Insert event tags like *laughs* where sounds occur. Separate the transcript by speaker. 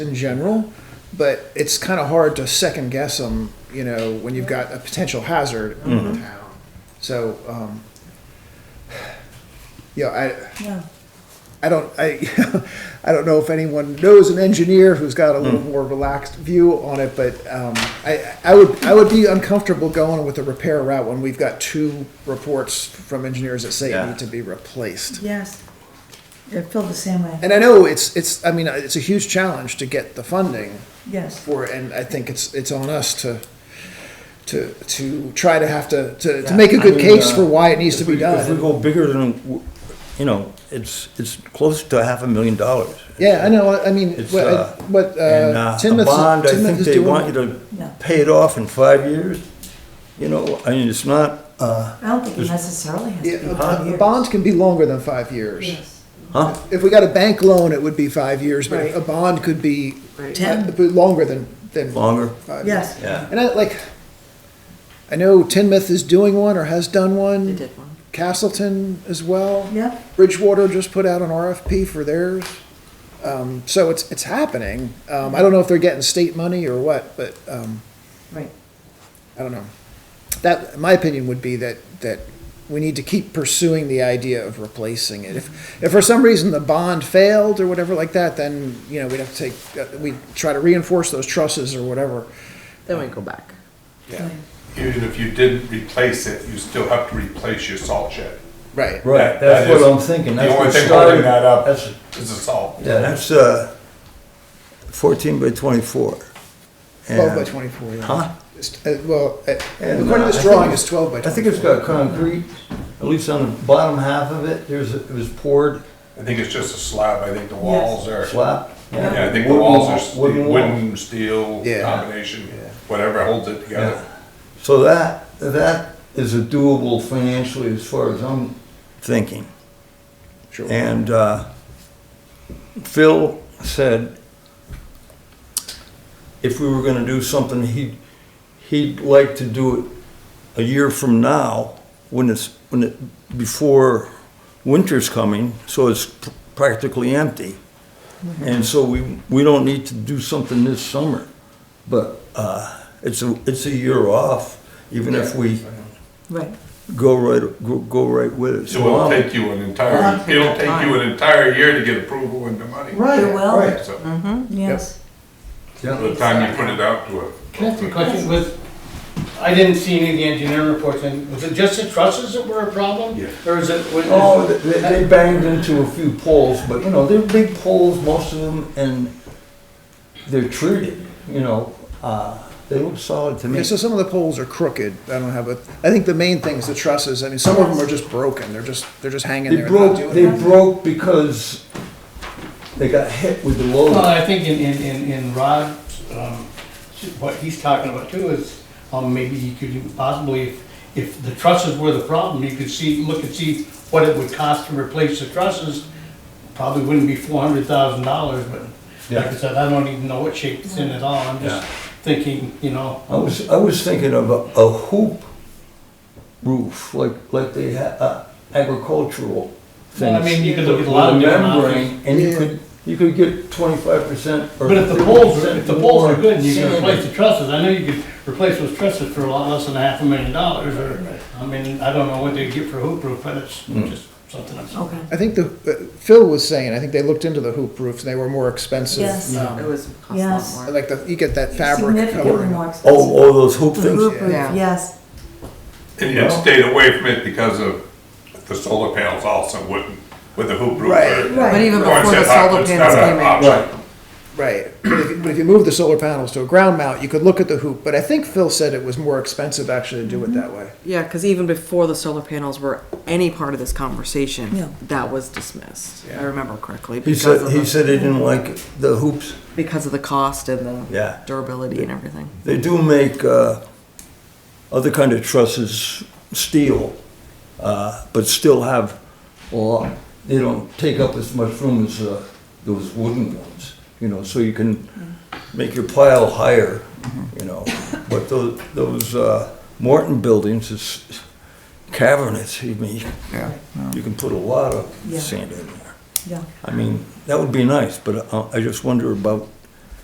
Speaker 1: in general, but it's kind of hard to second guess them, you know, when you've got a potential hazard in town. So, um, *sighs* yeah, I,
Speaker 2: No,
Speaker 1: I *laughs* don't, I, I don't know if anyone knows an engineer who's got a little more relaxed view on it, but, um, I, I would, I would be uncomfortable going with a repair route when we've got two reports from engineers that say it
Speaker 3: Yeah.
Speaker 1: need to be replaced.
Speaker 2: yes. I feel the same way,
Speaker 1: And I know it's, it's, I mean, it's a huge challenge to get the funding
Speaker 2: yes.
Speaker 1: for it, and I think it's, it's on us to, to, to try to have to, to, to make a good
Speaker 3: I mean,
Speaker 1: case
Speaker 3: uh,
Speaker 1: for why it needs to
Speaker 3: if
Speaker 1: be
Speaker 3: we- If we
Speaker 1: done.
Speaker 3: go bigger than, w- you know, it's, it's close to half a million dollars.
Speaker 1: Yeah, I know, I mean,
Speaker 3: It's,
Speaker 1: what,
Speaker 3: uh,
Speaker 1: what,
Speaker 3: And
Speaker 1: uh,
Speaker 3: uh, a
Speaker 1: Timoth,
Speaker 3: bond, I think
Speaker 1: Timoth is
Speaker 3: they want you
Speaker 1: doing.
Speaker 3: to
Speaker 2: No.
Speaker 3: pay it off in five years. You know, I mean, it's not, uh,
Speaker 2: I don't think it necessarily has to
Speaker 1: Yeah,
Speaker 2: be five
Speaker 1: a- a
Speaker 2: years.
Speaker 1: bond can be longer than five years.
Speaker 2: Yes.
Speaker 3: huh?
Speaker 1: If we got a bank loan, it would be five years, but
Speaker 2: Right.
Speaker 1: a bond could be
Speaker 2: Ten.
Speaker 1: uh, longer than, than
Speaker 3: Longer,
Speaker 1: five. years.
Speaker 2: Yes,
Speaker 3: yeah.
Speaker 1: And I, like, I know Tinmouth is doing one or has done one. They did one. Castleton as well.
Speaker 2: yep,
Speaker 1: Bridgewater just put out an RFP for theirs. Um, so it's, it's happening. Um, I don't know if they're getting state money or what, but, um,
Speaker 2: right.
Speaker 1: I don't know. That, my opinion would be that, that we need to keep pursuing the idea of replacing it. If, if for some reason the bond failed or whatever like that, then, you know, we'd have to take, uh, we'd try to reinforce those trusses or whatever.
Speaker 4: Then we go back.
Speaker 1: Yeah.
Speaker 5: Even if you did replace it, you still have to replace your salt shed.
Speaker 1: Right.
Speaker 3: Right,
Speaker 5: That-
Speaker 3: that's what
Speaker 5: that is
Speaker 3: I'm thinking.
Speaker 5: The
Speaker 3: That's
Speaker 5: only
Speaker 3: what
Speaker 5: thing
Speaker 3: started-
Speaker 5: holding that up
Speaker 3: That's,
Speaker 5: is the salt.
Speaker 3: yeah, that's, uh, fourteen by twenty-four.
Speaker 1: Twelve by
Speaker 3: And-
Speaker 1: twenty-four, yeah.
Speaker 3: Huh?
Speaker 1: It's- uh, Well, uh,
Speaker 3: And,
Speaker 1: according to
Speaker 3: uh, I
Speaker 1: this
Speaker 3: think
Speaker 1: drawing,
Speaker 3: it's-
Speaker 1: it's twelve by
Speaker 3: I think
Speaker 1: twenty-four.
Speaker 3: it's got concrete, at least on the bottom half of it, there's, it was poured
Speaker 5: I think it's just a slab, I think the walls are,
Speaker 3: slab.
Speaker 5: yeah, I think the walls are ste- wooden, steel,
Speaker 1: Yeah.
Speaker 5: combination, whatever holds it together.
Speaker 3: So that, that is a doable financially as far as I'm thinking.
Speaker 1: Sure.
Speaker 3: And uh, Phil said if we were gonna do something, he'd, he'd like to do it a year from now, when it's, when it, before winter's coming, so it's practically empty. And so we, we don't need to do something this summer, but uh, it's a, it's a year off, even if we
Speaker 2: Right.
Speaker 3: go right, go- go right with it.
Speaker 5: So it'll
Speaker 3: I'm-
Speaker 5: take you an entire,
Speaker 2: Well,
Speaker 5: it'll take you
Speaker 4: time.
Speaker 5: an entire year to get approval and the money.
Speaker 2: It will,
Speaker 3: right.
Speaker 5: So,
Speaker 4: Mm-hmm.
Speaker 2: yes.
Speaker 5: by the time you put it out to a.
Speaker 6: Can I ask a question with, I didn't see any of the engineering reports, and was it just the trusses that were a problem?
Speaker 5: Yeah.
Speaker 6: Or is it? was-
Speaker 3: Oh, they- they, they banged into a few poles, but you know, they're big poles, most of them, and they're treated, you know, uh, they look solid to me.
Speaker 1: Yeah, so some of the poles are crooked. I don't have a, I think the main thing is the trusses. I mean, some of them are just broken. They're just, they're just hanging
Speaker 3: They
Speaker 1: there. and not
Speaker 3: broke, they
Speaker 1: doing anything.
Speaker 3: broke because they got hit with the
Speaker 6: Well,
Speaker 3: load.
Speaker 6: I think in, in, in, in Rod's, um, what he's talking about too is, um, maybe you could possibly, if, if the trusses were the problem, you could see, look and see what it would cost to replace the trusses. Probably wouldn't be four hundred thousand dollars, but like I
Speaker 3: Yeah.
Speaker 6: said, I don't even know what shape it's in at all, I'm just
Speaker 3: Yeah.
Speaker 6: thinking, you know,
Speaker 3: I was, I was thinking of a, a hoop roof, like, like they had, uh, agricultural
Speaker 6: Well,
Speaker 3: things.
Speaker 6: I mean, you could look at a lot of
Speaker 3: With
Speaker 6: different
Speaker 3: membrane, And
Speaker 1: Yeah.
Speaker 3: you could, you could get twenty-five percent or.
Speaker 6: But if the poles, if
Speaker 3: 50%
Speaker 6: the poles are good, and you can
Speaker 3: more
Speaker 6: replace
Speaker 3: sand.
Speaker 6: the trusses, I know you could replace those trusses for a lot less than a half a million dollars, or, I mean, I don't know what they get for hoop roof, but it's just something I'm.
Speaker 4: Okay.
Speaker 1: I think the, uh, Phil was saying, I think they looked into the hoop roofs and they were more expensive.
Speaker 2: Yes.
Speaker 1: Um,
Speaker 4: It was cost a
Speaker 2: Yes.
Speaker 4: lot more.
Speaker 1: Like the, you get that fabric
Speaker 2: Significantly
Speaker 1: covering.
Speaker 2: more
Speaker 3: Oh,
Speaker 2: expensive.
Speaker 3: oh, those hoop
Speaker 2: The
Speaker 3: things?
Speaker 2: roof
Speaker 1: yeah.
Speaker 2: roof,
Speaker 4: Yeah.
Speaker 2: yes,
Speaker 5: And it stayed away from it because of the solar panels also wouldn't, with the hoop roof.
Speaker 1: Right.
Speaker 5: or-
Speaker 2: Right.
Speaker 4: But even
Speaker 5: Once
Speaker 4: before the
Speaker 5: it's hot,
Speaker 4: solar
Speaker 5: it's not
Speaker 4: panels
Speaker 5: an
Speaker 4: came in,
Speaker 5: option.
Speaker 1: Right. But if, you- but if you move the solar panels to a ground mount, you could look at the hoop. But I think Phil said it was more expensive actually to do it that way.
Speaker 4: yeah, because even before the solar panels were any part of this conversation,
Speaker 2: Yeah.
Speaker 4: that was dismissed. I remember correctly
Speaker 3: He
Speaker 4: because
Speaker 3: said,
Speaker 4: of
Speaker 3: he
Speaker 4: the,
Speaker 3: said he didn't like the hoops.
Speaker 4: because of the cost and the
Speaker 3: Yeah.
Speaker 4: durability and everything.
Speaker 3: They do make, uh, other kind of trusses, steel, uh, but still have a lot. They don't take up as much room as, uh, those wooden ones, you know, so you can make your pile higher, you know. But those, those, uh, Morton buildings is cavernous, I mean, you can put a lot of
Speaker 2: Yeah.
Speaker 3: sand in there.
Speaker 2: yeah.
Speaker 3: I mean, that would be nice, but I, I just wonder about